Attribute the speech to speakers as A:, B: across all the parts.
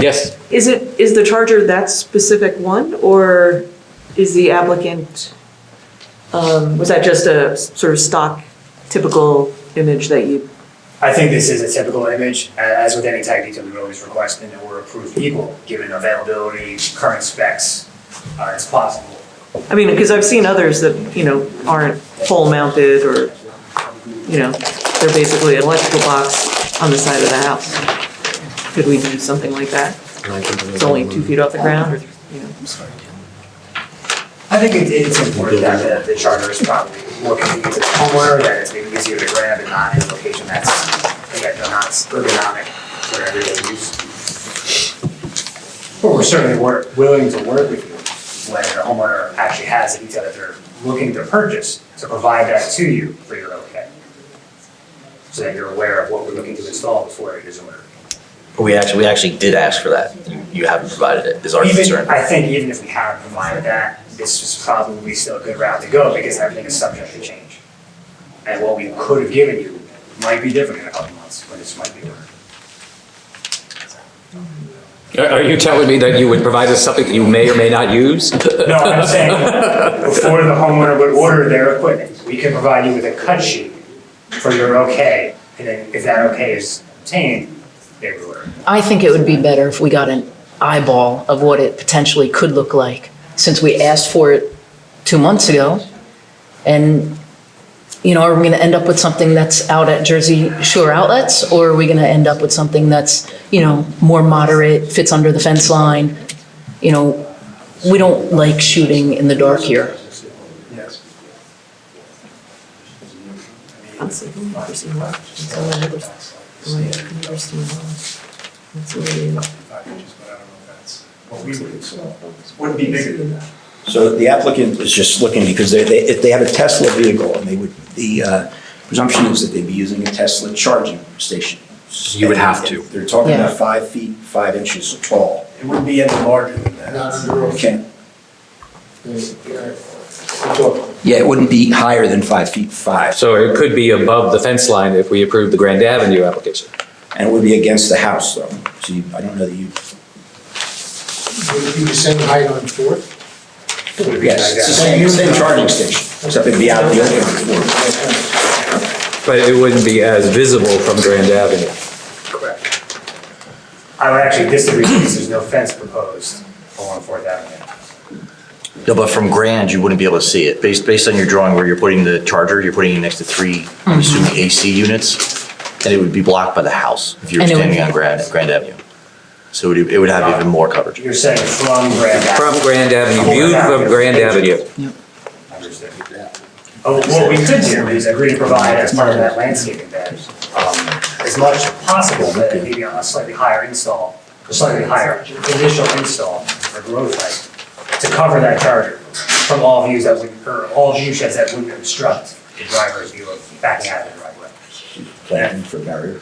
A: Yes,
B: Is it, is the charger that specific one, or is the applicant, um, was that just a sort of stock typical image that you?
C: I think this is a typical image, a- as with any type detail, we always request and that we're approved equal, given availability, current specs, uh, as possible.
B: I mean, because I've seen others that, you know, aren't pole mounted or, you know, they're basically an electrical box on the side of the house. Could we do something like that? It's only two feet off the ground, or, you know?
C: I think it, it's important that the, the charter is probably more convenient to the homeowner, that it's maybe easier to grab and not in a location that's, again, not ergonomic for everyday use. But we're certainly wor- willing to work with you when the homeowner actually has a detail that they're looking to purchase, to provide that to you for your okay. So that you're aware of what we're looking to install before it is ordered.
D: We actually, we actually did ask for that. You- You haven't provided it, is our
C: Even-
D: concern.
C: I think even if we haven't provided that, this is probably still a good route to go because everything is subject to change. And what we could have given you might be different in a couple months, but this might be different.
A: are are you telling me that you would provide us something that you may or may not use?
C: No, I'm saying before the homeowner would order their equipment, we can provide you with a cut sheet for your okay. And then if that okay is obtained, they would order.
E: I think it would be better if we got an eyeball of what it potentially could look like, since we asked for it two months ago. And, you know, are we gonna end up with something that's out at Jersey Shore outlets? Or are we gonna end up with something that's, you know, more moderate, fits under the fence line? You know, we don't like shooting in the dark here.
C: Yes.
B: Let's see, who knows, you know, it's all over. Right, interesting. That's really-
C: What we would install wouldn't be bigger than that.
F: So the applicant was just looking because they, they, if they have a Tesla vehicle and they would, the uh, presumption is that they'd be using a Tesla charging station.
D: You would have to.
F: They're talking
E: Yeah.
F: about five feet, five inches tall.
G: It wouldn't be any larger than that.
H: Not under oath.
F: Okay.
H: Well,
F: Yeah, it wouldn't be higher than five feet five.
A: So it could be above the fence line if we approve the Grand Avenue application.
F: And it would be against the house though. So you, I don't know that you,
H: Would it be the same height on Fourth?
F: yes, it's the same, same charging station, except it'd be out in the open.
A: But it wouldn't be as visible from Grand Avenue.
C: Correct. I would actually disagree because there's no fence proposed along Fourth Avenue.
D: No, but from Grand, you wouldn't be able to see it. Based, based on your drawing where you're putting the charger, you're putting it next to three,
E: Mm-hmm.
D: I'm assuming AC units, and it would be blocked by the house if you were
E: And it would
D: standing
E: be-
D: on Grand, Grand Avenue. So it would, it would have even more coverage.
C: You're saying from Grand
A: From
C: Avenue.
A: Grand Avenue, viewed from Grand Avenue.
C: Understood. Oh, What we could do is agree to provide as part of that landscaping bed, um, as much as possible, but maybe on a slightly higher install, a slightly higher initial install or growth height, to cover that charger from all views that would, or all view sheds that wouldn't obstruct the driver's view of backing out of the driveway.
F: Planting for barrier,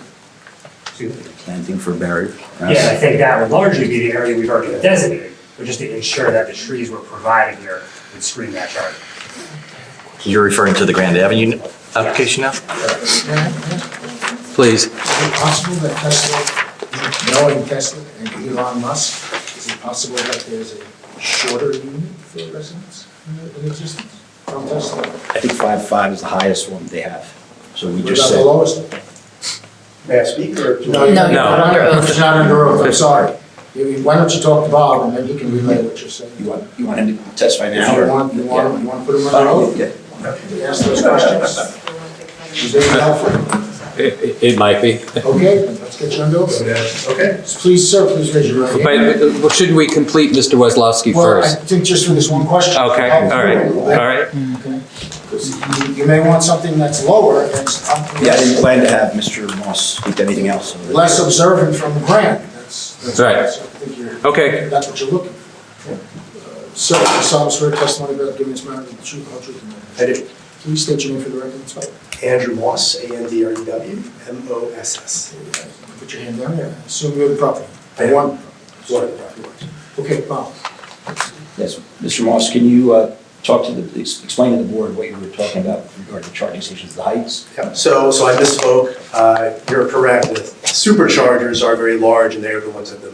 F: planting for barrier.
C: Yeah, I think that would largely be the area we've already designated, but just to ensure that the trees we're providing here would screen that charger.
D: You're referring to the Grand Avenue application now? Please.
H: Is it possible that Tesla, knowing Tesla and Elon Musk, is it possible that there's a shorter unit for residents in in existence from Tesla? What
F: I think five, five is the highest one they have. So we just
H: about
F: said.
H: the lowest?
G: May I speak or?
H: you're
E: No, you're
A: No.
E: not under
H: It's
E: oath.
H: not under oath, I'm sorry. You- Why don't you talk to Bob and then you can relay what you're saying?
F: You want, you want him to testify
H: You
F: now? or-
H: want, you want, you want to put him under oath?
F: Yeah.
H: You Ask those questions? Is that helpful?
A: It, it might be.
H: Okay, then let's get you under oath.
G: Okay.
H: Please, sir, please raise your right hand.
A: But shouldn't we complete Mr. Weslovsky
H: Well, I
A: first?
H: think just for this one question.
A: Okay, all right, all right.
H: right. You may want something that's lower, that's up-
F: Yeah, I didn't plan to have Mr. Moss speak to anything else.
H: less observant from the ground. That's, that's,
A: Right.
H: that's- I think you're,
A: Okay.
H: that's what you're looking for. Uh, So, I solemnly swear testimony about giving this matter the truth, whole truth, and nothing but
G: I
H: the
G: do.
H: truth. Please state your name for the record, it's fine.
G: Andrew Moss, A N D R E W M O S S.
H: Put your hand down there, assume you're the property.
G: I am.
H: One.
G: One of the property.
H: Okay, Bob.
F: Yes, Mr. Moss, can you uh, talk to the, ex- explain to the board what you were talking about regarding charging stations, the heights?
G: So, so I misspoke. Uh, You're correct. The
H: superchargers are very large and they're the ones that the